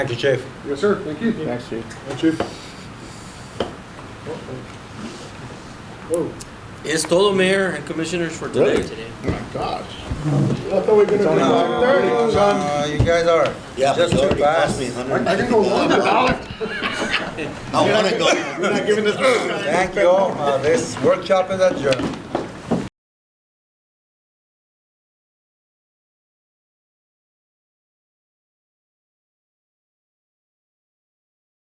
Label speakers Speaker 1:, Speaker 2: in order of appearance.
Speaker 1: Thank you, Chief.
Speaker 2: Yes, sir, thank you.
Speaker 3: Thanks, Chief.
Speaker 2: Thank you. Whoa.
Speaker 4: It's total mayor and commissioners for today.
Speaker 3: Really? My gosh.
Speaker 2: I thought we were gonna do five thirty.
Speaker 1: Uh, you guys are
Speaker 5: Yeah, but
Speaker 1: just
Speaker 5: it
Speaker 1: too
Speaker 5: already cost me
Speaker 1: fast.
Speaker 5: a hundred.
Speaker 2: I can go longer.
Speaker 5: I wanna go.
Speaker 1: Thank you all. Uh, This workshop is adjourned.